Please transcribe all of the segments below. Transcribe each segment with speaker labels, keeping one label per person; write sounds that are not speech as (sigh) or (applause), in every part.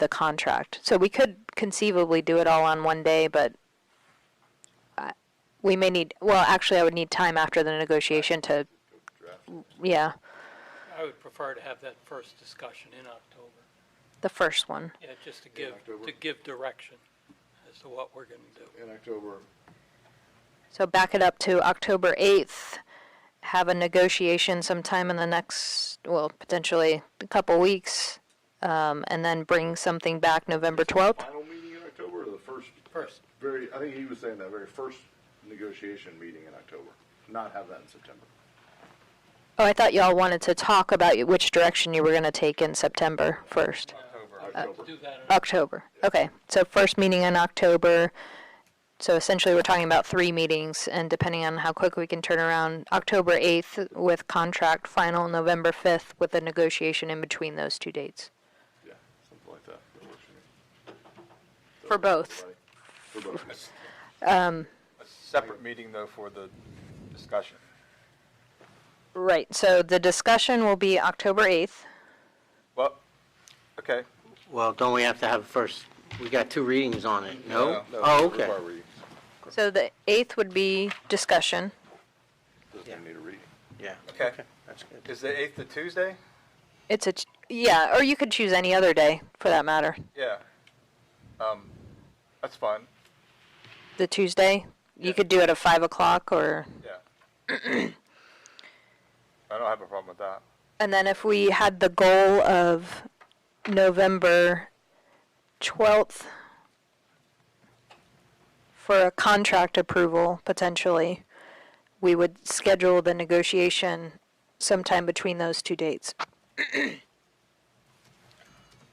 Speaker 1: the contract. So we could conceivably do it all on one day, but I- we may need, well, actually, I would need time after the negotiation to, yeah,
Speaker 2: I would prefer to have that first discussion in October,
Speaker 1: the first one.
Speaker 2: yeah, just to give,
Speaker 3: October.
Speaker 2: to give direction as to what we're gonna do.
Speaker 3: in October.
Speaker 1: So back it up to October 8th, have a negotiation sometime in the next, well, potentially a couple weeks, um, and then bring something back November 12th?
Speaker 3: Final meeting in October or the first?
Speaker 2: First.
Speaker 3: Very, I think he was saying that very first negotiation meeting in October, not have that in September.
Speaker 1: Oh, I thought y'all wanted to talk about which direction you were going to take in September first.
Speaker 4: Uh,
Speaker 3: October.
Speaker 2: Do that in
Speaker 1: October. Okay, so first meeting in October. So essentially, we're talking about three meetings, and depending on how quick we can turn around, October 8th with contract final, November 5th with a negotiation in between those two dates.
Speaker 3: Yeah, something like that. That works for me.
Speaker 1: For both.
Speaker 3: Right. For
Speaker 4: (laughs)
Speaker 3: both.
Speaker 4: Um,
Speaker 5: A separate meeting, though, for the discussion.
Speaker 1: Right, so the discussion will be October 8th.
Speaker 5: Well, okay.
Speaker 4: Well, don't we have to have first, we got two readings on it, no?
Speaker 3: No,
Speaker 4: Oh,
Speaker 3: we're
Speaker 4: okay.
Speaker 3: far reading.
Speaker 1: So the 8th would be discussion.
Speaker 3: Doesn't even need a reading.
Speaker 4: Yeah.
Speaker 5: Okay.
Speaker 4: That's good.
Speaker 5: Is the 8th the Tuesday?
Speaker 1: It's a, t- yeah, or you could choose any other day for that matter.
Speaker 5: Yeah. Um, That's fine,
Speaker 1: the Tuesday. You
Speaker 5: Yeah.
Speaker 1: could do it at five o'clock or,
Speaker 5: yeah. I don't have a problem with that.
Speaker 1: and then if we had the goal of November twelfth for a contract approval potentially, we would schedule the negotiation sometime between those two dates.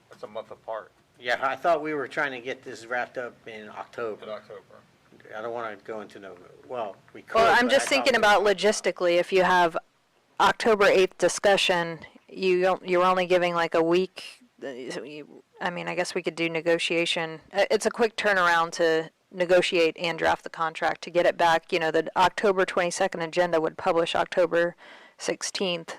Speaker 5: That's a month apart
Speaker 4: Yeah, I thought we were trying to get this wrapped up in
Speaker 5: in
Speaker 4: October.
Speaker 5: October.
Speaker 4: I don't want to go into no, well, we could.
Speaker 1: Well, I'm
Speaker 4: but I
Speaker 1: just
Speaker 4: thought
Speaker 1: thinking
Speaker 4: we-
Speaker 1: about logistically, if you have October eighth discussion, you don't, you're only giving like a week. uh, so you- I mean, I guess we could do negotiation. Uh, It's a quick turnaround to negotiate and draft the contract to get it back. You know, the October twenty-second agenda would publish October sixteenth.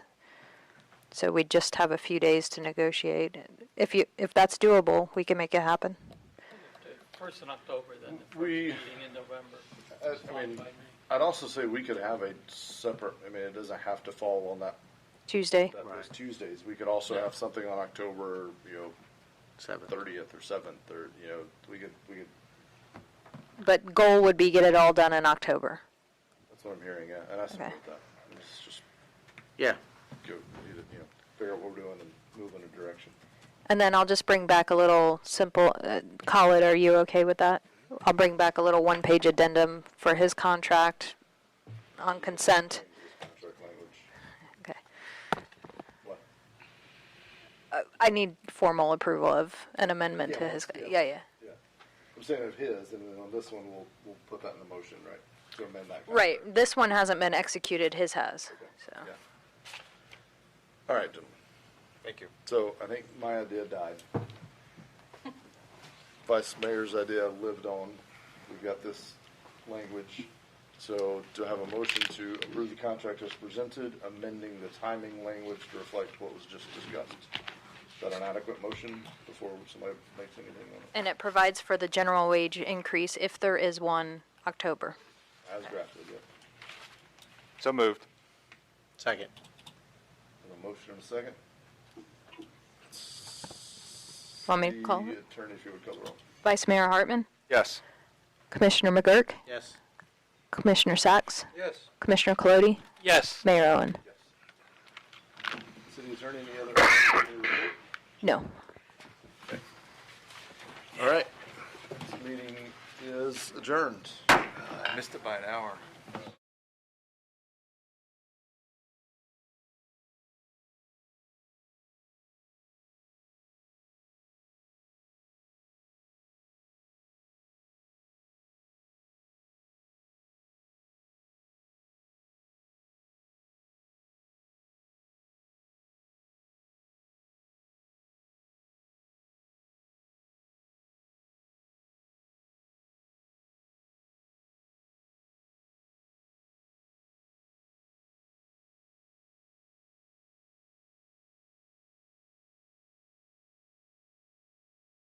Speaker 1: So we'd just have a few days to negotiate. If you, if that's doable, we can make it happen.
Speaker 2: First in October, then the first
Speaker 3: We-
Speaker 2: meeting in November.
Speaker 3: As- I
Speaker 2: Fine
Speaker 3: mean,
Speaker 2: by me.
Speaker 3: I'd also say we could have a separate, I mean, it doesn't have to fall on that,
Speaker 1: Tuesday?
Speaker 3: that those
Speaker 4: Right.
Speaker 3: Tuesdays. We could also have something on October, you know,
Speaker 4: Seventh.
Speaker 3: thirtieth or seventh, or, you know, we could, we could,
Speaker 1: But goal would be get it all done in October.
Speaker 3: that's what I'm hearing, yeah, and I support that. Let's just
Speaker 4: Yeah,
Speaker 3: go, you know, figure out what we're doing and move in a direction.
Speaker 1: And then I'll just bring back a little simple, uh, call it, are you okay with that? I'll bring back a little one-page addendum for his contract on consent.
Speaker 3: Contract language.
Speaker 1: Okay.
Speaker 3: What?
Speaker 1: Uh, I need formal approval of an amendment to
Speaker 3: Yeah,
Speaker 1: his,
Speaker 3: yeah.
Speaker 1: yeah, yeah.
Speaker 3: Yeah. I'm saying of his, and then on this one, we'll, we'll put that in the motion, right? To amend that.
Speaker 1: Right,
Speaker 3: contract.
Speaker 1: this one hasn't been executed, his has, so.
Speaker 3: Yeah. All right, gentlemen.
Speaker 5: Thank you.
Speaker 3: So I think my idea died. Vice Mayor's idea lived on. We've got this language. So to have a motion to approve the contract as presented, amending the timing language to reflect what was just discussed. Is that an adequate motion before somebody makes anything on it?
Speaker 1: And it provides for the general wage increase, if there is one, October.
Speaker 3: As drafted, yeah.
Speaker 5: So moved.
Speaker 4: second.
Speaker 3: Have a motion and a second.
Speaker 1: Want me to call
Speaker 3: The
Speaker 1: it?
Speaker 3: Attorney, if you would call the roll.
Speaker 1: Vice Mayor Hartman,
Speaker 5: Yes.
Speaker 1: Commissioner McGurk,
Speaker 4: Yes.
Speaker 1: Commissioner Sacks,
Speaker 5: Yes.
Speaker 1: Commissioner Colodi,
Speaker 2: Yes,
Speaker 1: Mayor Owen.
Speaker 3: Yes. City Attorney, any other?
Speaker 1: No.
Speaker 3: All right. This meeting is adjourned.
Speaker 5: Missed it by an hour.